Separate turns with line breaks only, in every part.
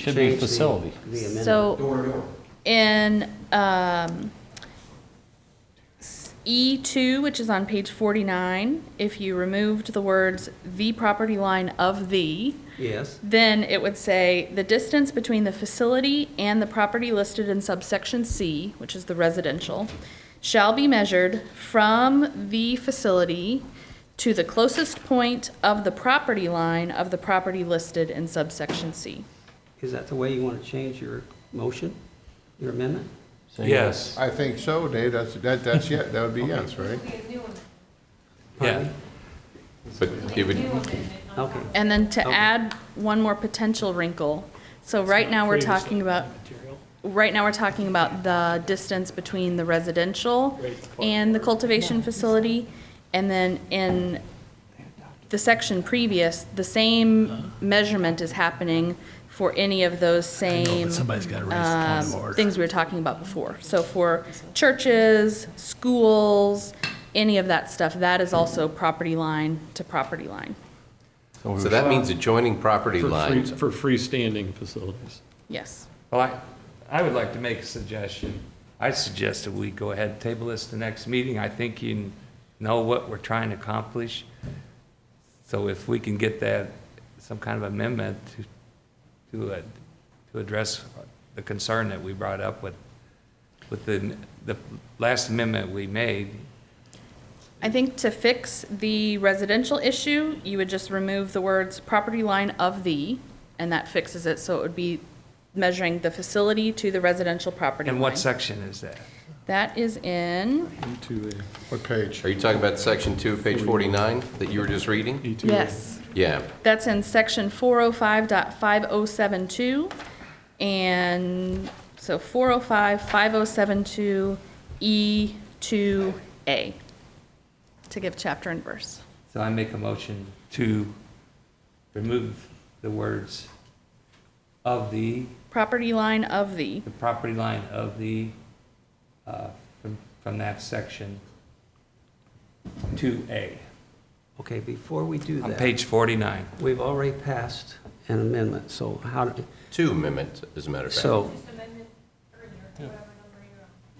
Should be
change the-
facility.
The amendment.
So
Door to door.
in um, E2, which is on page 49, if you removed the words "the property line of the,"
Yes,
then it would say, "The distance between the facility and the property listed in subsection C," which is the residential, "shall be measured from the facility to the closest point of the property line of the property listed in subsection C."
is that the way you want to change your motion, your amendment?
Say
Yes,
I think so, Dave, that's, that, that's, yeah, that would be yes, right?
yeah.
But it would,
Okay,
And then to
Okay.
add one more potential wrinkle, so right now we're talking about, right now we're talking about the distance between the residential and the cultivation facility, and then in the section previous, the same measurement is happening for any of those same, um, things we were talking about before. So for churches, schools, any of that stuff, that is also property line to property line,
so that means adjoining property
For free-
lines.
For freestanding facilities.
yes.
Well, I, I would like to make a suggestion. I suggest that we go ahead and table this to next meeting. I think you know what we're trying to accomplish. So if we can get that, some kind of amendment to, to, uh, to address the concern that we brought up with, with the, the last amendment we made,
I think to fix the residential issue, you would just remove the words property line of the, and that fixes it, so it would be measuring the facility to the residential property line.
and what section is that?
That is in,
E2A,
What page?
Are you talking about section two, page 49, that you were just reading?
E2A.
yes,
Yeah,
that's in section 405.5072, and so 405.5072 E two A, to give chapter and verse.
So I make a motion to remove the words of the,
Property line of the,
the property line of the, uh, from, from that section to A,
okay, before we do
on
that,
page forty-nine.
we've already passed an amendment, so how,
two amendments, as a matter of fact.
so,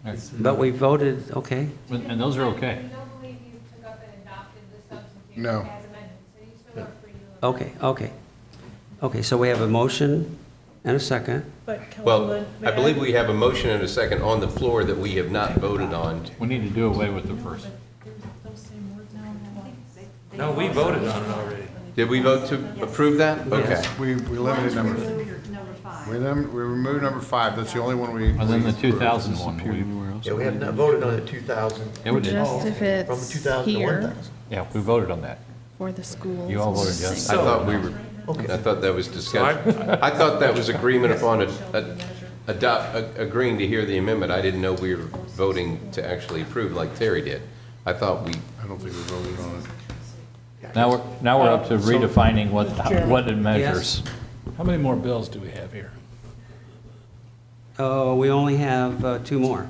Yes.
but we voted, okay,
And and those are okay.
I don't believe you took up and adopted the substitute
No.
as amended, so you still are free to.
okay, okay. Okay, so we have a motion and a second.
But
Well,
Councilman, may
I believe we have a motion and a second on the floor that we have not voted on.
We need to do away with the first.
No, we voted on it already.
Did we vote to approve that? Okay.
We, we eliminated number,
Number five.
we num- we removed number five, that's the only one we.
And then the
we-
2000 one, we-
Anywhere else?
Yeah, we have not voted on the 2000,
yeah, we did.
just if
Oh, from the
it's
2000 to
here.
1000.
Yeah, we voted on that.
For the schools.
You all voted yes.
I thought we were, I thought that was discussion.
So
I thought that was agreement upon a, a- adopt, a- agreeing to hear the amendment. I didn't know we were voting to actually approve like Terry did. I thought we,
I don't think we voted on it.
Now we're, now we're up to redefining what, what it
Yes.
measures.
How many more bills do we have here?
Oh, we only have uh, two more.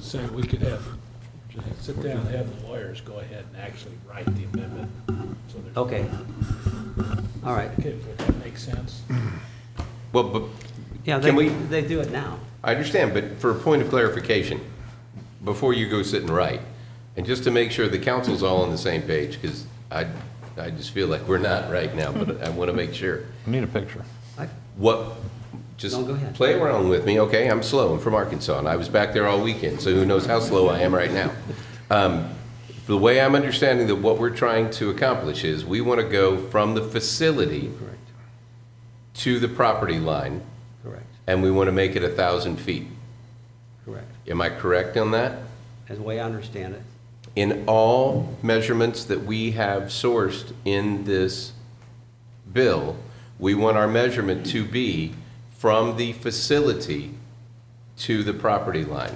Say, we could have, sit down, have the lawyers go ahead and actually write the amendment. So there's,
Okay. All right.
okay, would that make sense?
well, but
Yeah,
Can
they,
we-
they do it now.
I understand, but for a point of clarification, before you go sit and write, and just to make sure the council's all on the same page, because I, I just feel like we're not right now, but I want to make sure.
We Need a picture.
What, just
No, go ahead.
play around with me, okay? I'm slow, I'm from Arkansas, and I was back there all weekend, so who knows how slow I am right now. Um, The way I'm understanding that what we're trying to accomplish is, we want to go from the facility
Correct,
to the property line,
correct,
and we want to make it a 1,000 feet.
correct.
Am I correct on that?
As the way I understand it.
in all measurements that we have sourced in this bill, we want our measurement to be from the facility to the property line.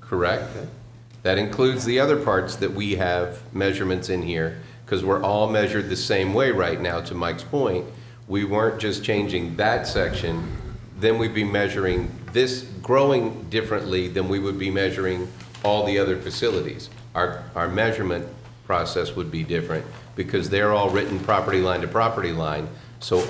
Correct? That includes the other parts that we have measurements in here, because we're all measured the same way right now, to Mike's point. We weren't just changing that section, then we'd be measuring this growing differently than we would be measuring all the other facilities. Our, our measurement process would be different, because they're all written property line to property line, So